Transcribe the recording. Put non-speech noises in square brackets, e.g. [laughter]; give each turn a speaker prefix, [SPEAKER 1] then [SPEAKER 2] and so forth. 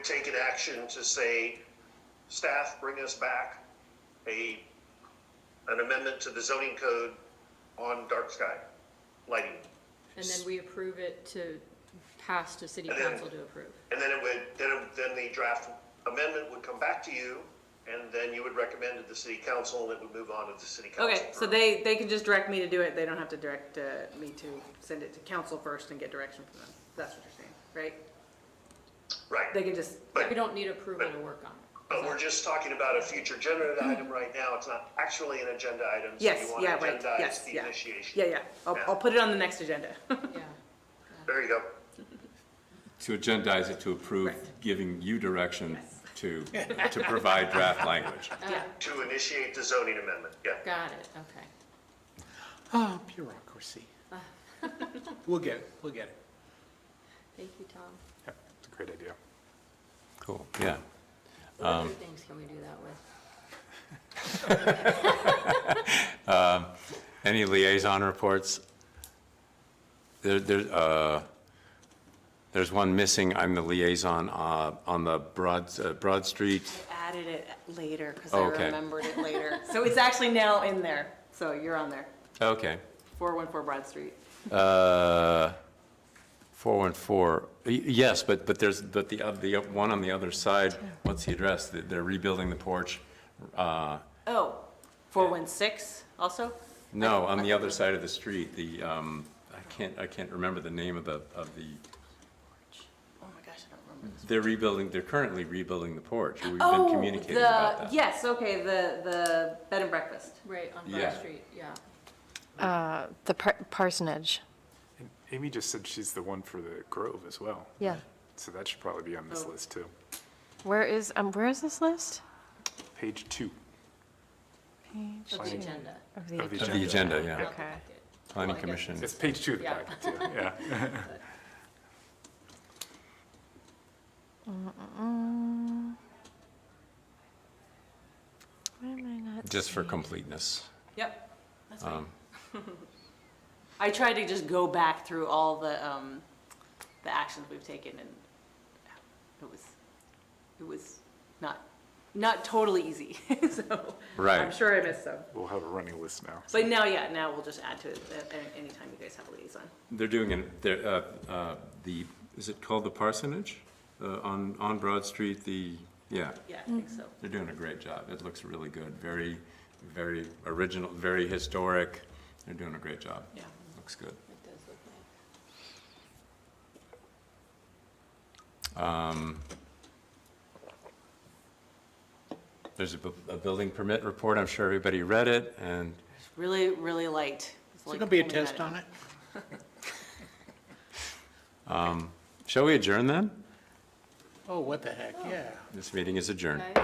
[SPEAKER 1] take an action to say, staff, bring us back a, an amendment to the zoning code on dark sky lighting.
[SPEAKER 2] And then we approve it to pass to city
[SPEAKER 1] And then-
[SPEAKER 2] council to approve.
[SPEAKER 1] And then it would, then, it- then the draft amendment would come back to you, and then you would recommend it to the city council, and it would move on to the city council.
[SPEAKER 3] Okay, so
[SPEAKER 1] for-
[SPEAKER 3] they, they can just direct me to do it, they don't have to direct uh, me to send it to council first and get direction from them. That's what you're saying, right? They
[SPEAKER 1] Right,
[SPEAKER 3] can just,
[SPEAKER 2] We don't need approval to work on it.
[SPEAKER 1] but we're just talking about a future agenda item right now, it's not actually an agenda item. so
[SPEAKER 3] yes,
[SPEAKER 1] you want
[SPEAKER 3] yeah,
[SPEAKER 1] to
[SPEAKER 3] right,
[SPEAKER 1] agendize
[SPEAKER 3] yes,
[SPEAKER 1] the
[SPEAKER 3] yeah.
[SPEAKER 1] initiation.
[SPEAKER 3] Yeah, yeah, I'll,
[SPEAKER 1] Yeah.
[SPEAKER 3] I'll put it on the next agenda. [laughs]
[SPEAKER 4] Uh,
[SPEAKER 2] Yeah.
[SPEAKER 1] There you go.
[SPEAKER 5] To agendize it to approve,
[SPEAKER 3] Correct.
[SPEAKER 5] giving you direction to, to provide draft language.
[SPEAKER 2] Uh,
[SPEAKER 1] To initiate the zoning amendment, yeah.
[SPEAKER 2] Got it, okay.
[SPEAKER 6] Ah, bureaucracy. We'll get it, we'll get it.
[SPEAKER 2] Thank you, Tom.
[SPEAKER 6] Yep, it's a great idea.
[SPEAKER 5] Cool, yeah.
[SPEAKER 2] What
[SPEAKER 5] Um,
[SPEAKER 2] other things can we do that with?
[SPEAKER 5] Any liaison reports? There, there, uh, there's one missing, I'm the liaison, uh, on the Broad, uh, Broad Street.
[SPEAKER 4] added it later because I
[SPEAKER 5] Okay.
[SPEAKER 4] remembered it later.
[SPEAKER 3] [laughs] So it's actually now in there, so you're on there,
[SPEAKER 5] Okay.
[SPEAKER 3] 414 Broad Street.
[SPEAKER 5] Uh, 414, Y- yes, but, but there's, but the, oth- the one on the other side, what's the address? They- They're rebuilding the porch. uh,
[SPEAKER 3] Oh, 416 also?
[SPEAKER 5] No, on the other side of the street, the, um, I can't, I can't remember the name of the, of the,
[SPEAKER 4] Oh my gosh, I don't remember.
[SPEAKER 5] they're rebuilding, they're currently rebuilding the porch. We've been
[SPEAKER 3] Oh,
[SPEAKER 5] communicating about
[SPEAKER 3] the-
[SPEAKER 5] that.
[SPEAKER 3] Yes, okay, the, the bed and breakfast.
[SPEAKER 2] Right, on
[SPEAKER 5] Yeah.
[SPEAKER 2] Broad Street, yeah.
[SPEAKER 7] Uh, The par- parsonage,
[SPEAKER 6] And Amy just said she's the one for the Grove as well.
[SPEAKER 7] yeah.
[SPEAKER 6] So that should probably be on this list too.
[SPEAKER 7] Where is, um, where is this list?
[SPEAKER 6] Page two
[SPEAKER 7] Page
[SPEAKER 2] Of the agenda.
[SPEAKER 7] of the-
[SPEAKER 6] of the
[SPEAKER 5] Of the
[SPEAKER 6] agenda.
[SPEAKER 5] agenda, yeah.
[SPEAKER 7] Okay.
[SPEAKER 5] Planning Commission.
[SPEAKER 6] It's page two of the
[SPEAKER 2] Yeah.
[SPEAKER 6] packet too, yeah.
[SPEAKER 7] Why am I not
[SPEAKER 5] Just for completeness.
[SPEAKER 3] Yep.
[SPEAKER 4] [laughs] I tried to just go back through all the, um, the actions we've taken and it was, it was not, not totally easy, [laughs] so.
[SPEAKER 3] I'm
[SPEAKER 5] Right.
[SPEAKER 3] sure I missed some.
[SPEAKER 6] We'll have a running list now.
[SPEAKER 3] But now, yeah, now we'll just add to it uh, any- anytime you guys have a liaison.
[SPEAKER 5] They're doing, an- they're, uh, uh, the, is it called the parsonage? Uh, On, on Broad Street, the, yeah,
[SPEAKER 3] Yeah, I
[SPEAKER 6] Mm-hmm.
[SPEAKER 3] think so.
[SPEAKER 5] they're doing a great job. It looks really good. Very, very original, very historic. They're doing a great job.
[SPEAKER 3] Yeah.
[SPEAKER 5] Looks good.
[SPEAKER 2] It does look nice.
[SPEAKER 5] Um, There's a, bu- a building permit report, I'm sure everybody read it, and
[SPEAKER 4] Really, really light. It's
[SPEAKER 6] there
[SPEAKER 4] like
[SPEAKER 6] gonna be a
[SPEAKER 4] only had
[SPEAKER 6] test on it?
[SPEAKER 5] shall we adjourn then?
[SPEAKER 6] Oh, what the heck, yeah. Oh,
[SPEAKER 5] This meeting is adjourned.
[SPEAKER 2] Okay.